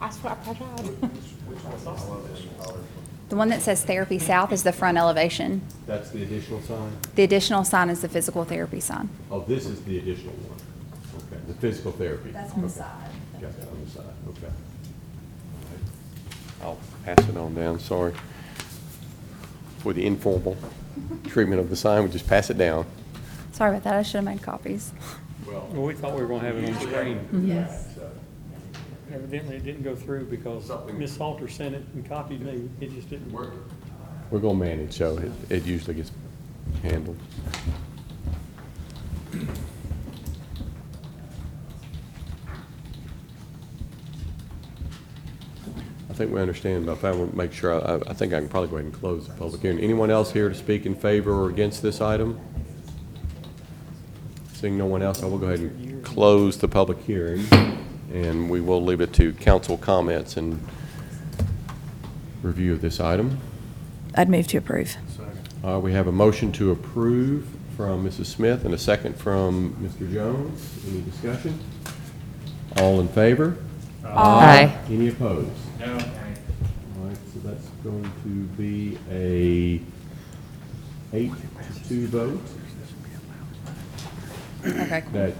I swear, I tried. The one that says Therapy South is the front elevation. That's the additional sign? The additional sign is the physical therapy sign. Oh, this is the additional one. Okay, the physical therapy. Okay. Got that on the side, okay. I'll pass it on down, sorry. For the informal treatment of the sign, we just pass it down. Sorry about that, I should have made copies. Well, Well, we thought we were gonna have it on Mm-hmm. screen. yes. Evidently, it didn't go through because Ms. Salter sent it and copied me. It just didn't work. We're gonna manage, so it, it usually gets handled. I think we understand, but if I want to make sure, I, I think I can probably go ahead and close the public hearing. Anyone else here to speak in favor or against this item? Seeing no one else, I will go ahead and close the public hearing, and we will leave it to council comments and review of this item. I'd move to approve. Uh, We have a motion to approve from Mrs. Smith and a second from Mr. Jones. Any discussion? All in favor? Aye. Any opposed? No. All right, so that's going to be a eight to two vote. Okay, That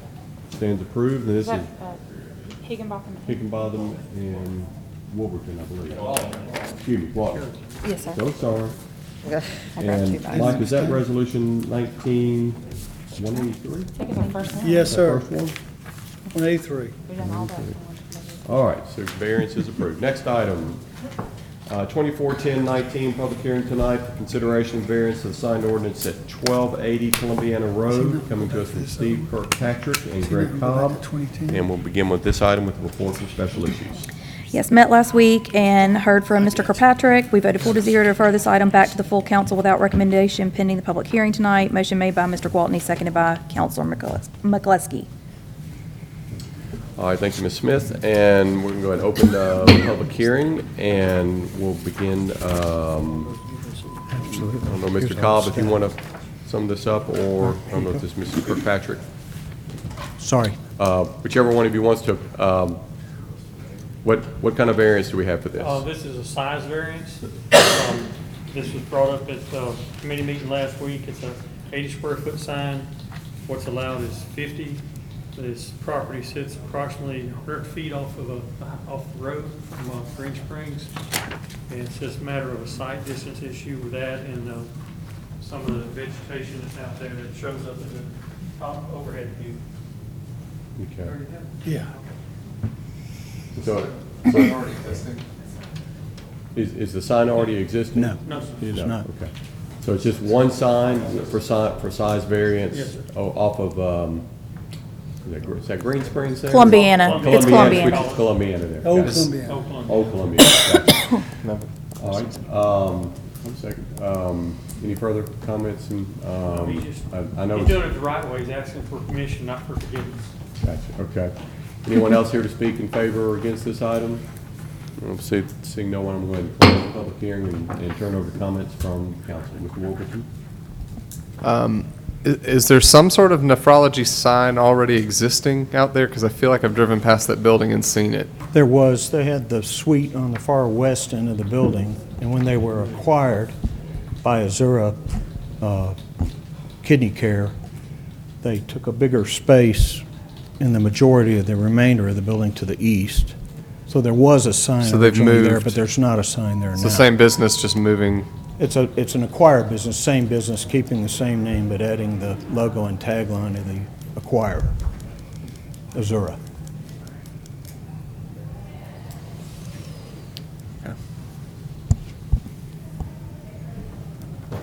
stands approved, and this is uh, Higginbotham. Higginbotham and Wolverton, I believe. Excuse me, Walker. Yes, sir. So sorry. I grabbed two And bites. Mike, is that resolution nineteen one eighty-three? Take it from first one. Yes, sir. First one? 183. We done all that. All right, so variance is approved. Next item, uh, 241019, public hearing tonight for consideration of variance of the signed ordinance at 1280 Columbiana Road, coming to us from uh, Steve Kirkpatrick and Greg Cobb. 2010. And we'll begin with this item with reports of special issues. Yes, met last week and heard from Mr. Kirkpatrick. We voted four to zero to refer this item back to the full council without recommendation pending the public hearing tonight. Motion made by Mr. Gwaltney, seconded by Counselor McCles- McCluskey. All right, thank you, Ms. Smith, and we're going to go ahead and open the public hearing, and we'll begin, um, I don't know, Mr. Cobb, if you want to sum this up, or I don't know if this is Mrs. Kirkpatrick. Sorry. Uh, Whichever one of you wants to, um, what, what kind of variance do we have for this? Uh, this is a size variance. Um, This was brought up at the committee meeting last week. It's a eighty square foot sign. What's allowed is fifty. This property sits approximately hundred feet off of a, off the road from uh, Green Springs. And it's just a matter of a site distance issue with that and, uh, some of the vegetation that's out there that shows up in the top overhead view. Okay. Yeah. So, so- is, is the sign already existing? No. No, sir. It is It's not. Okay. So it's just one sign for si, for size variance? Yes, sir. o- Off of, um, is that Gr- is that Green Springs there? Columbiana. It's Columbiana, which Columbiana. is Columbiana there. Old Got it. Oh. Columbia. Oakland. Old Columbiana. All right, um, one second, um, any further comments and, He um, just- I, I know. He's it's- doing it the right way, he's asking for permission, not for forgiveness. Gotcha, okay. Anyone else here to speak in favor or against this item? Um, see- Seeing no one, I'm going to close the public hearing and- and turn over comments from council. Mr. Wolverton? I- Is there some sort of nephrology sign already existing out there? Because I feel like I've driven past that building and seen it. There was, they had the suite on the far west end of the building, and when they were acquired by Azura uh, Kidney Care, they took a bigger space in the majority of the remainder of the building to the east. So there was a sign So they've originally there, moved. but there's not a sign there now. It's the same business, just moving. It's a, it's an acquired business, same business, keeping the same name, but adding the logo and tagline of the acquirer, Azura.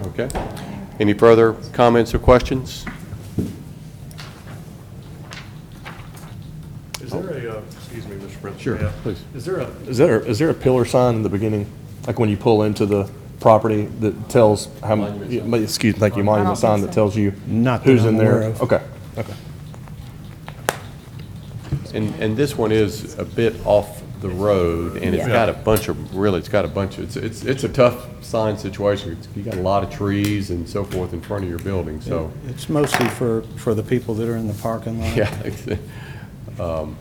Okay. Any further comments or questions? Is there a, uh, excuse me, Mr. Prince? Sure, may I- please. Is there a, Is there, is there a pillar sign in the beginning, like when you pull into the property that tells how, m- yeah, ma- excuse, thank you, monument sign that tells you Not that who's I'm in there? aware of. Okay, okay. And, and this one is a bit off the road, and it's Yeah. got a bunch of, really, it's got a bunch of, it's, it's, it's a tough sign situation. It's- You got a lot of trees and so forth in front of your building, so. It's mostly for, for the people that are in the parking lot. Yeah. Um,